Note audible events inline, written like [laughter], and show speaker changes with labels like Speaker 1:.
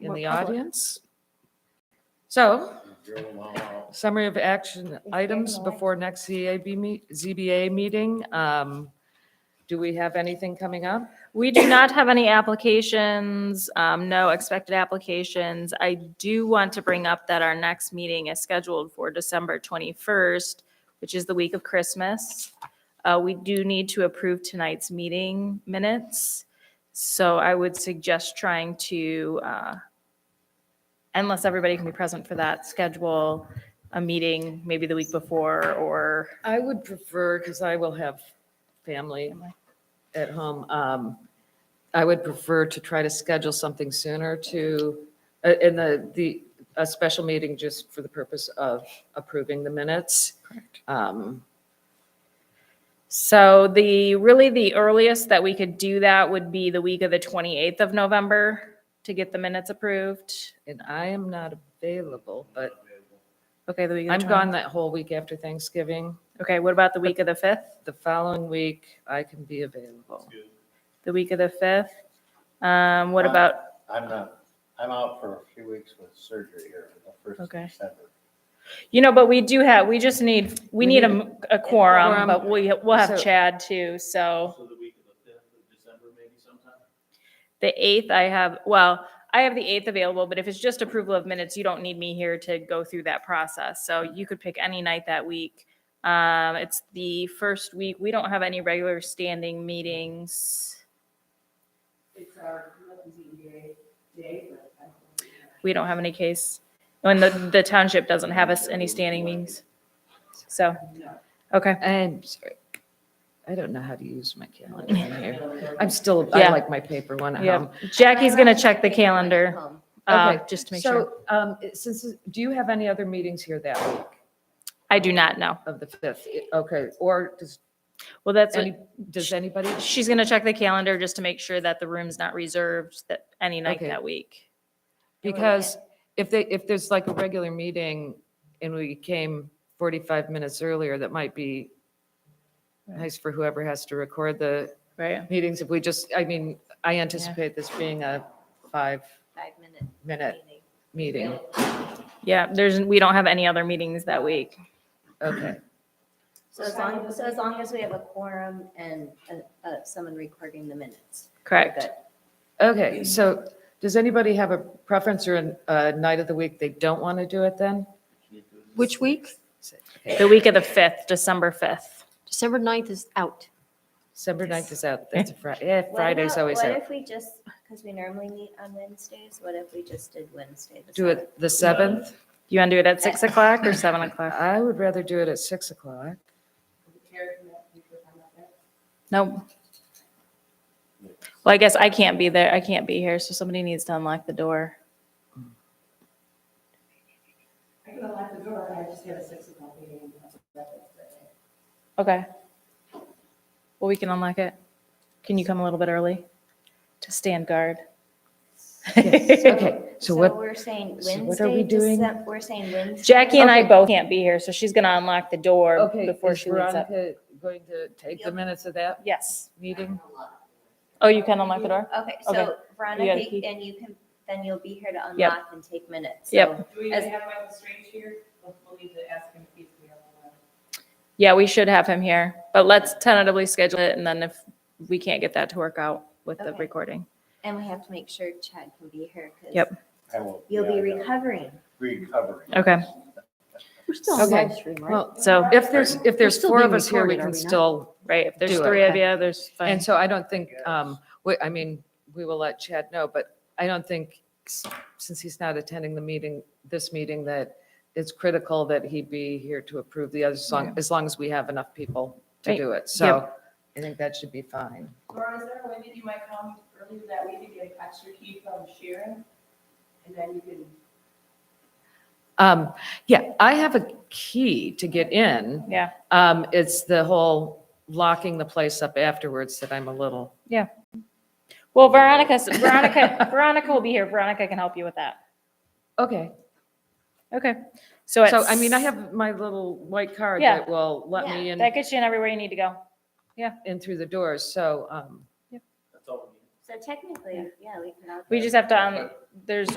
Speaker 1: in
Speaker 2: What
Speaker 1: the
Speaker 2: public?
Speaker 1: audience. So, summary of action items before next ZAB meet, ZBA meeting. Um, Do we have anything coming up?
Speaker 2: We do not have any applications, um, no expected applications. I do want to bring up that our next meeting is scheduled for December 21st, which is the week of Christmas. Uh, We do need to approve tonight's meeting minutes, so I would suggest trying to, uh, unless everybody can be present for that, schedule a meeting maybe the week before or
Speaker 1: I would prefer, because I will have family at home, um, I would prefer to try to schedule something sooner to, uh, in the, the, a special meeting just for the purpose of approving the minutes. Um,
Speaker 2: So the, really the earliest that we could do that would be the week of the 28th of November to get the minutes approved.
Speaker 1: And I am not available, but
Speaker 2: Okay, the week of
Speaker 1: I'm
Speaker 2: the
Speaker 1: gone
Speaker 2: 20th.
Speaker 1: that whole week after Thanksgiving.
Speaker 2: Okay, what about the week of the 5th?
Speaker 1: The following week, I can be available.
Speaker 2: The week of the 5th? Um, what
Speaker 3: Uh,
Speaker 2: about,
Speaker 3: I'm not, I'm out for a few weeks with surgery here, the first of
Speaker 2: Okay.
Speaker 3: December.
Speaker 2: you know, but we do have, we just need, we
Speaker 1: We
Speaker 2: need a
Speaker 1: need
Speaker 2: m- a quorum,
Speaker 1: quorum.
Speaker 2: but we, we'll have
Speaker 1: So-
Speaker 2: Chad too, so.
Speaker 4: So the week of the fifth of December, maybe sometime?
Speaker 2: The 8th I have, well, I have the 8th available, but if it's just approval of minutes, you don't need me here to go through that process. So you could pick any night that week. Um, it's the first week. We don't have any regular standing meetings.
Speaker 5: It's our ZBA day, but I don't.
Speaker 2: We don't have any case. When the, the township doesn't have us any standing meetings. So, okay.
Speaker 1: I'm sorry. I don't know how to use my
Speaker 2: [laughs]
Speaker 1: calendar in here. I'm still, I
Speaker 2: Yeah.
Speaker 1: like my paper one at
Speaker 2: Yeah.
Speaker 1: home.
Speaker 2: Jackie's going to check the calendar, uh,
Speaker 1: Okay.
Speaker 2: just to make sure.
Speaker 1: So, um, since, do you have any other meetings here that week
Speaker 2: I do not know.
Speaker 1: of the 5th? Okay, or does,
Speaker 2: Well, that's, what-
Speaker 1: any does anybody?
Speaker 2: she's going to check the calendar just to make sure that the room's not reserved that any night
Speaker 1: Okay.
Speaker 2: that week.
Speaker 1: Because if they, if there's like a regular meeting and we came 45 minutes earlier, that might be nice for whoever has to record the
Speaker 2: Right.
Speaker 1: meetings. If we just, I mean, I anticipate this being a five-minute
Speaker 5: Five-minute
Speaker 1: Uh, meeting.
Speaker 2: Yeah, there's, we don't have any other meetings that week.
Speaker 1: Okay,
Speaker 6: So as long, so as long as we have a quorum and, uh, uh, someone recording the minutes. we're
Speaker 2: Correct.
Speaker 6: good.
Speaker 1: okay. So does anybody have a preference or an- a night of the week they don't want to do it then?
Speaker 7: Which week?
Speaker 2: The week of the 5th, December 5th.
Speaker 7: December 9th is out.
Speaker 1: December 9th is out, that's a Friday, yeah,
Speaker 6: What
Speaker 1: Friday's
Speaker 6: about-
Speaker 1: always
Speaker 6: What
Speaker 1: out.
Speaker 6: if we just, because we normally meet on Wednesdays, what if we just did Wednesday? the
Speaker 1: Do it the 7th?
Speaker 2: You want to do it at 6 o'clock
Speaker 1: [laughs]
Speaker 2: or 7 o'clock?
Speaker 1: I would rather do it at 6 [laughs] o'clock.
Speaker 2: No. Well, I guess I can't be there. I can't be here, so somebody needs to unlock the door.
Speaker 5: I can unlock the door, I just have a six o'clock meeting.
Speaker 2: Okay. Well, we can unlock it. Can you come a little bit early to stand guard?
Speaker 1: Okay,
Speaker 6: 7th?
Speaker 1: so what,
Speaker 6: we're saying
Speaker 1: so
Speaker 6: Wednesday.
Speaker 1: what are we doing?
Speaker 6: Decem- We're saying
Speaker 2: [laughs]
Speaker 6: Wednesday.
Speaker 2: Jackie and I
Speaker 1: Okay.
Speaker 2: both can't be here, so she's going to unlock the door
Speaker 1: okay,
Speaker 2: before
Speaker 1: is
Speaker 2: she leaves up.
Speaker 1: Veronica going to take the
Speaker 6: Yep.
Speaker 1: minutes of that
Speaker 2: Yes.
Speaker 1: meeting?
Speaker 2: Oh, you can unlock the door?
Speaker 6: Okay,
Speaker 2: Okay.
Speaker 6: so Veronica,
Speaker 2: key?
Speaker 6: and you can, then you'll be here to
Speaker 2: Yep.
Speaker 6: unlock and take minutes. So
Speaker 2: Yep.
Speaker 5: Do we
Speaker 6: As-
Speaker 5: even have Michael Strange here? We'll we'll need to ask him if he's available.
Speaker 2: Yeah, we should have him here, but let's tentatively schedule it and then if we can't get that to work out with the
Speaker 6: Okay.
Speaker 2: recording.
Speaker 6: And we have to make sure Chad can be here. 'cause
Speaker 2: Yep.
Speaker 3: I will.
Speaker 6: You'll be
Speaker 3: yeah, I know.
Speaker 6: recovering.
Speaker 3: Recovering.
Speaker 2: Okay,
Speaker 7: We're still
Speaker 1: on
Speaker 7: on
Speaker 1: Okay.
Speaker 7: live stream, right?
Speaker 1: Well,
Speaker 2: so,
Speaker 1: if there's, if there's
Speaker 7: still
Speaker 1: four of
Speaker 7: being
Speaker 1: us here, we
Speaker 7: recorded,
Speaker 1: can
Speaker 7: are we not?
Speaker 1: still,
Speaker 2: right, if there's
Speaker 1: Do it,
Speaker 2: three of
Speaker 1: okay.
Speaker 2: you, there's fine.
Speaker 1: and so I don't think, um, we- I mean, we will let Chad know, but I don't think, s- since he's not attending the meeting, this meeting, that it's critical that he be here to approve the other song, as long as we have enough people to
Speaker 2: Right.
Speaker 1: do it. So I think that should be fine.
Speaker 5: Laura, is there a way that you might come earlier that week and get an extra key from Sharon? And then you can,
Speaker 1: Um, yeah, I have a key to get in.
Speaker 2: Yeah.
Speaker 1: Um, it's the whole locking the place up afterwards that I'm a little,
Speaker 2: Well, Veronica, Veronica, [laughs] Veronica will be here. Veronica can help you with that.
Speaker 1: okay.
Speaker 2: Okay, so it's.
Speaker 1: So, I mean, I have my little white card
Speaker 2: Yeah.
Speaker 1: that will let me in,
Speaker 2: That gets you in everywhere you need to go.
Speaker 1: in through the doors, so, um.
Speaker 4: That's all we need.
Speaker 6: So technically, yeah, we can all.
Speaker 2: We
Speaker 6: go.
Speaker 2: just have to, um, there's